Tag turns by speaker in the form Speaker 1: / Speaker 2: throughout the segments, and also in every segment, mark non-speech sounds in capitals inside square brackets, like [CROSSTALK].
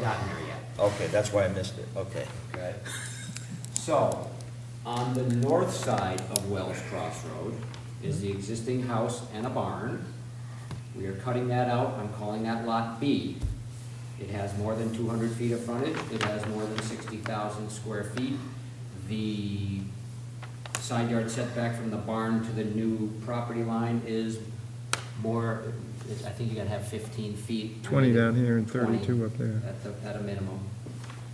Speaker 1: gotten there yet.
Speaker 2: Okay, that's why I missed it, okay.
Speaker 1: okay? [LAUGHS] So, on the north side of Wells Cross Road is the existing house and a barn. We are cutting that out, I'm calling that Lot B. It has more than two hundred feet of frontage, it has more than sixty thousand square feet. The side yard setback from the barn to the new property line is more, I think you gotta have fifteen feet.
Speaker 3: 20 down here and 32 up
Speaker 1: 20
Speaker 3: there.
Speaker 1: At the, at a minimum.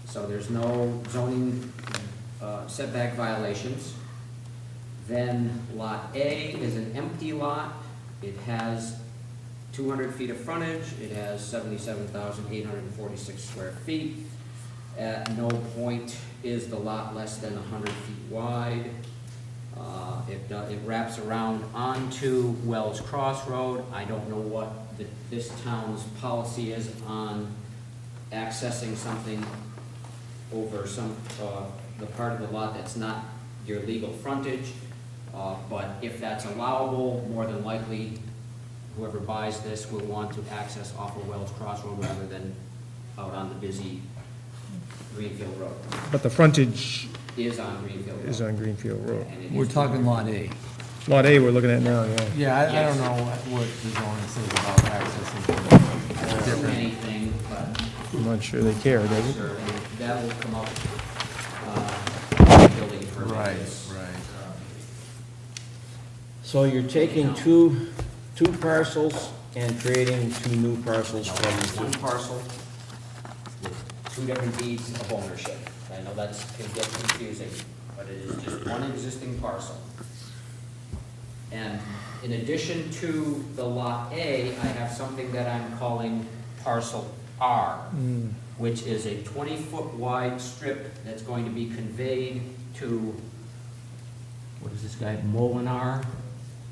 Speaker 1: So there's no zoning uh, setback violations. Then Lot A is an empty lot. It has 200 feet of frontage. It has 77,846 square feet. At no point is the lot less than 100 feet wide. Uh, It, do- it wraps around onto Wells Cross Road. I don't know what the- this town's policy is on accessing something over some, uh, the part of the lot that's not your legal frontage. Uh, But if that's allowable, more than likely, whoever buys this will want to access off of Wells Cross Road rather than out on the busy Greenfield Road.
Speaker 3: But the frontage
Speaker 1: Is on Greenfield Road.
Speaker 3: is on Greenfield Road.
Speaker 1: and it
Speaker 4: We're
Speaker 1: is-
Speaker 4: talking Lot A.
Speaker 3: Lot A, we're looking at now, yeah.
Speaker 4: Yeah, I, I
Speaker 1: Yes.
Speaker 4: don't know what, what the zoning says about accessing.
Speaker 1: I don't know Anything, but
Speaker 3: I'm not sure they care, does it?
Speaker 1: sure, that will come up, uh, building permit. is-
Speaker 4: right.
Speaker 2: So you're taking two, two parcels and creating two new parcels from,
Speaker 1: One parcel with two different deeds of ownership. I know that's, can get confusing, but it is just one existing parcel. And in addition to the Lot A, I have something that I'm calling parcel R, which is a twenty-foot wide strip that's going to be conveyed to, what is this guy, Molinar?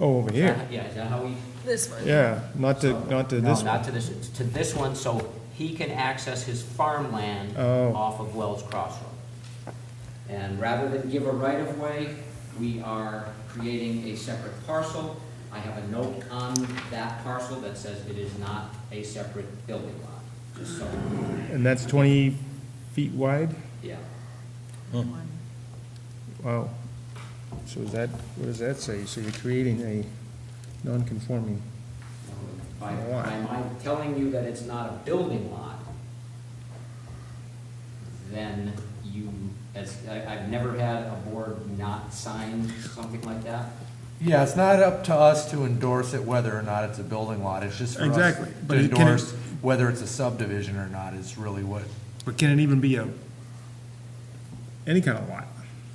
Speaker 3: Oh, over
Speaker 1: Is
Speaker 3: here,
Speaker 1: that- Yeah, is that how we?
Speaker 5: This one.
Speaker 3: yeah, not to, not to this
Speaker 1: No,
Speaker 3: one.
Speaker 1: not to this, to this one, so he can access his farmland
Speaker 3: Oh.
Speaker 1: off of Wells Crossroad. And rather than give a right-of-way, we are creating a separate parcel. I have a note on that parcel that says it is not a separate building lot, just so,
Speaker 3: And that's 20 feet wide?
Speaker 1: yeah.
Speaker 3: Wow. So is that, what does that say? So you're creating a non-conforming,
Speaker 1: By,
Speaker 3: Why?
Speaker 1: by my telling you that it's not a building lot, then you, as, I, I've never had a board not sign something like that.
Speaker 4: Yeah, it's not up to us to endorse it whether or not it's a building lot, it's just for us
Speaker 3: Exactly,
Speaker 4: to
Speaker 3: but it- can it-
Speaker 4: endorse whether it's a subdivision or not is really what,
Speaker 3: but can it even be a, any kind of lot?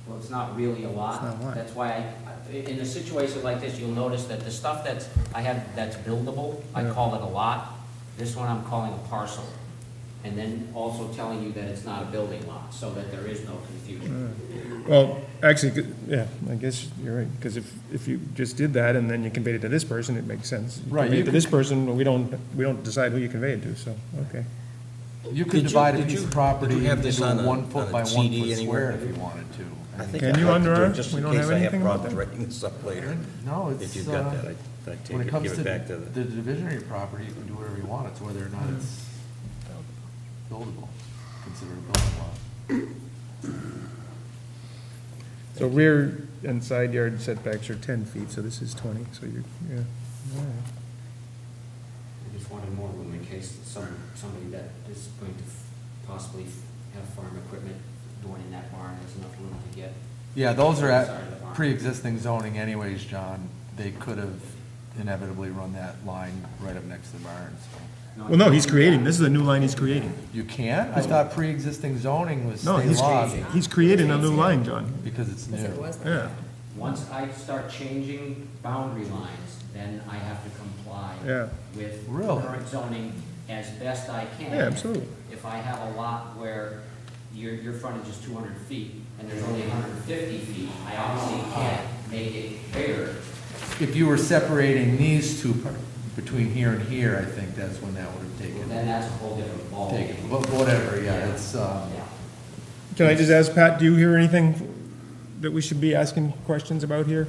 Speaker 1: Well, it's not really a lot.
Speaker 3: It's not a lot.
Speaker 1: That's why I, in a situation like this, you'll notice that the stuff that's, I have, that's buildable, I
Speaker 3: Yeah.
Speaker 1: call it a lot. This one I'm calling a parcel. And then also telling you that it's not a building lot, so that there is no confusion.
Speaker 3: Well, actually, good- yeah, I guess you're right, because if, if you just did that and then you conveyed it to this person, it makes sense. You
Speaker 4: Right,
Speaker 3: convey
Speaker 4: you
Speaker 3: it to
Speaker 4: could-
Speaker 3: this person, but we don't, we don't decide who you convey it to, so, okay.
Speaker 4: you
Speaker 6: Did
Speaker 4: could
Speaker 6: you-
Speaker 4: divide a
Speaker 6: did
Speaker 4: piece
Speaker 6: you-
Speaker 4: of
Speaker 6: did
Speaker 4: property
Speaker 6: you have this
Speaker 4: into
Speaker 6: on
Speaker 4: a
Speaker 6: a-
Speaker 4: one
Speaker 6: on
Speaker 4: foot
Speaker 6: a
Speaker 4: by one
Speaker 6: CD
Speaker 4: foot
Speaker 6: anywhere?
Speaker 4: square if you wanted to.
Speaker 2: I
Speaker 4: I mean,
Speaker 2: think
Speaker 3: Can
Speaker 2: I'd
Speaker 3: you
Speaker 2: like to
Speaker 3: under
Speaker 2: do it
Speaker 3: ours?
Speaker 2: Just
Speaker 3: We
Speaker 2: in
Speaker 3: don't have
Speaker 2: case I have
Speaker 3: anything about
Speaker 2: problems
Speaker 3: that.
Speaker 2: writing this up later.
Speaker 4: No, it's,
Speaker 6: If you've got
Speaker 4: uh,
Speaker 6: that, I, I take
Speaker 4: when it
Speaker 6: it,
Speaker 4: comes
Speaker 6: give
Speaker 4: to
Speaker 6: it back to
Speaker 4: the
Speaker 6: the,
Speaker 4: divisionary property, you can do whatever you want, it's whether or not it's buildable, considered a building lot.
Speaker 3: So rear and side yard setbacks are ten feet, so this is twenty, so you're, yeah. All right.
Speaker 1: I just wanted more room in case some, somebody that is going to possibly have farm equipment going in that barn, there's enough room to get.
Speaker 4: Yeah, those are
Speaker 1: Sorry, the barn.
Speaker 4: at pre-existing zoning anyways, John. They could have inevitably run that line right up next to the barn, so.
Speaker 3: Well, no, he's creating, this is a new line he's creating.
Speaker 4: You can? I thought pre-existing zoning was
Speaker 3: No,
Speaker 4: state
Speaker 3: he's,
Speaker 4: law
Speaker 3: he's creating a new line, John,
Speaker 4: because it's
Speaker 5: Yes, it
Speaker 4: new.
Speaker 5: was.
Speaker 3: yeah.
Speaker 1: Once I start changing boundary lines, then I have to comply
Speaker 3: Yeah.
Speaker 1: with
Speaker 4: Really?
Speaker 1: current zoning as best I can.
Speaker 3: Yeah, absolutely.
Speaker 1: If I have a lot where your, your frontage is two hundred feet and there's only hundred and fifty feet, I obviously can't make it bigger.
Speaker 4: If you were separating these two, par- between here and here, I think that's when that would have
Speaker 1: Well,
Speaker 4: taken,
Speaker 1: Then that's a whole different
Speaker 4: taken,
Speaker 1: ballgame.
Speaker 4: but whatever, yeah, it's, um,
Speaker 1: Yeah.
Speaker 3: Can I just ask, Pat, do you hear anything that we should be [LAUGHS] asking questions about here?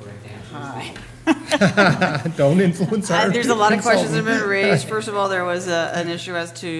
Speaker 1: The correct answer is
Speaker 3: Don't influence
Speaker 5: Uh,
Speaker 3: our.
Speaker 5: There's a lot of questions that
Speaker 3: consultant.
Speaker 5: have been raised. First of all, there was a, an issue as to